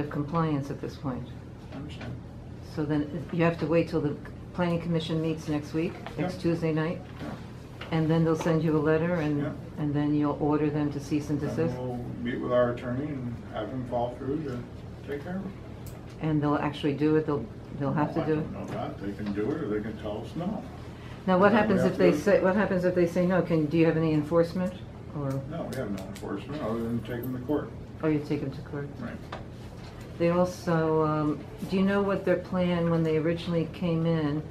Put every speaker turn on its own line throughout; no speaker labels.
of compliance at this point.
I understand.
So then you have to wait till the planning commission meets next week, next
Yeah.
Tuesday night,
Yeah.
and then they'll send you a letter and,
Yeah.
and then you'll order them to cease and desist?
And we'll meet with our attorney and have him fall through to take care of it.
And they'll actually do it, they'll, they'll have to
Well, I
do
don't
it?
know that. They can do it or they can tell us no.
Now, what
No, we
happens
have
if they
to-
say, what happens if they say no? Can, do you have any enforcement? Or,
No, we have no enforcement other than take them to court.
or you take them to court?
Right.
They also, um, do you know what their plan, when they originally came in,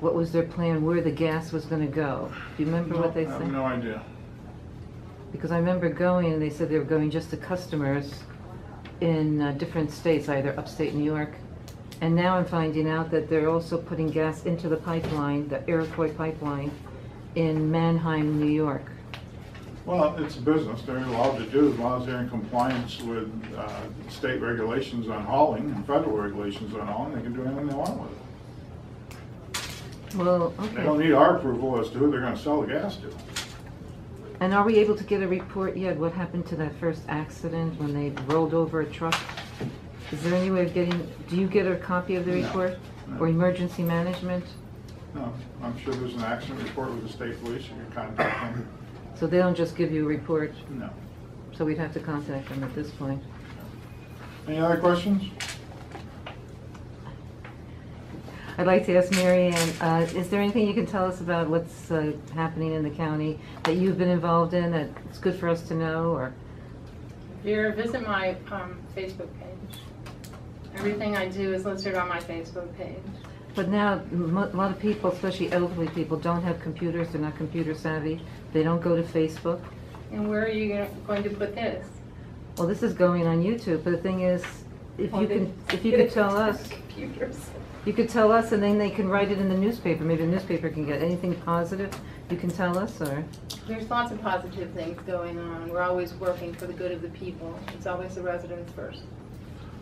what was their plan, where the gas was gonna go? Do you remember what they
No,
said?
I have no idea.
Because I remember going, and they said they were going just to customers in uh, different states, either upstate New York. And now I'm finding out that they're also putting gas into the pipeline, the Iroquois pipeline, in Manheim, New York.
Well, it's a business. They're allowed to do as long as they're in compliance with uh, state regulations on hauling and federal regulations on hauling. They can do anything they want with it.
Well,
They don't
okay.
need our approval as to who they're gonna sell the gas to.
And are we able to get a report yet? What happened to that first accident when they rolled over a truck? Is there any way of getting, do you get a copy of the
No,
report?
no.
Or emergency management?
No, I'm sure there's an accident report with the state police. You can contact them.
So they don't just give you a report,
No.
so we'd have to contact them at this point.
Any other questions?
I'd like to ask Mary Ann, uh, is there anything you can tell us about what's uh, happening in the county that you've been involved in that it's good for us to know, or,
Vera, visit my um, Facebook page. Everything I do is listed on my Facebook page.
but now, m- a lot of people, especially elderly people, don't have computers, they're not computer savvy, they don't go to Facebook.
And where are you gonna- going to put this?
Well, this is going on YouTube, but the thing is, if you can, if you could tell us,
Computers.
you could tell us, and then they can write it in the newspaper, maybe the newspaper can get anything positive you can tell us, or?
There's lots of positive things going on. We're always working for the good of the people. It's always the residents first.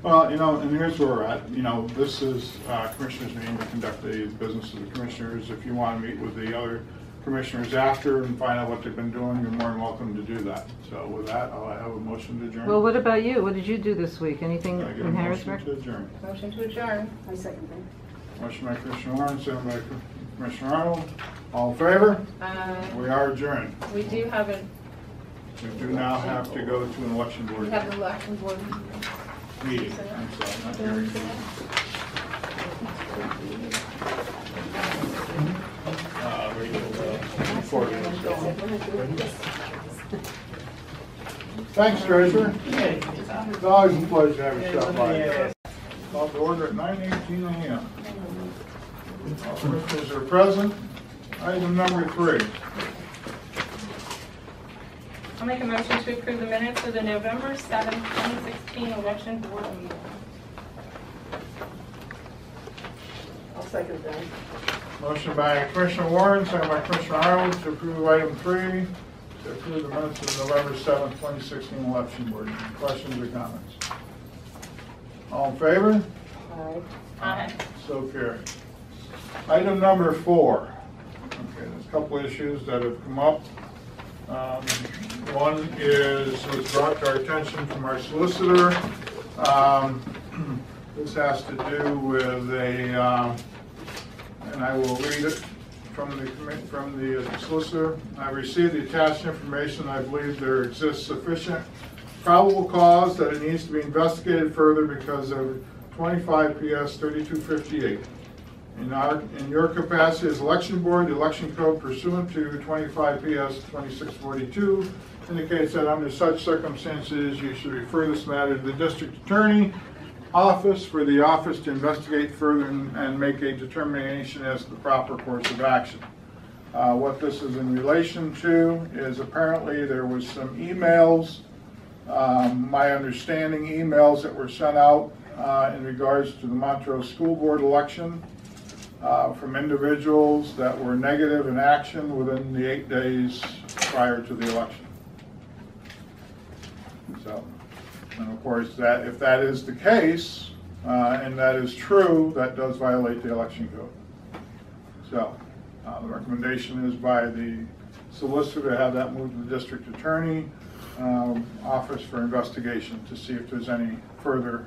Well, you know, and here's where we're at, you know, this is uh, commissioners meeting to conduct the business of the commissioners. If you want to meet with the other commissioners after and find out what they've been doing, you're more than welcome to do that. So with that, I'll have a motion to adjourn.
Well, what about you? What did you do this week? Anything
Can I get a
in Harrisburg?
motion to adjourn?
Motion to adjourn.
I second that.
Motion by Commissioner Warren, second by Commissioner Arnold. All in favor?
Uh,
We are adjourned.
We do have a,
We do now have to go to an election
we
board
have the election board.
meeting. I'm sorry, not hearing. Uh, Rachel, uh, before we go. Thanks, Treasurer. It's always a pleasure to have you stop by. Call to order at nine eighteen AM. All Commissioners are present. Item number three.
I'll make a motion to approve the minutes of the November seventh, 2016 election board meeting.
I'll second that.
Motion by Commissioner Warren, second by Commissioner Arnold to approve item three, to approve the minutes of November seventh, twenty sixteen election board. Questions or comments? All in favor?
Aye.
Aye.
So carried. Item number four. Okay, there's a couple issues that have come up. Um, One is, was brought to our attention from our solicitor. Um, This has to do with a, um, and I will read it from the, commi- from the solicitor. I received the attached information. I believe there exists sufficient probable cause that it needs to be investigated further because of 25 PS 3258. In our, in your capacity as election board, the election code pursuant to 25 PS 2642 indicates that under such circumstances, you should refer this matter to the district attorney office for the office to investigate further and and make a determination as to the proper course of action. Uh, What this is in relation to is apparently there was some emails, um, my understanding, emails that were sent out uh, in regards to the Montrose School Board election uh, from individuals that were negative in action within the eight days prior to the election. So, and of course, that, if that is the case, uh, and that is true, that does violate the election code. So, uh, the recommendation is by the solicitor to have that moved to the district attorney, um, office for investigation to see if there's any further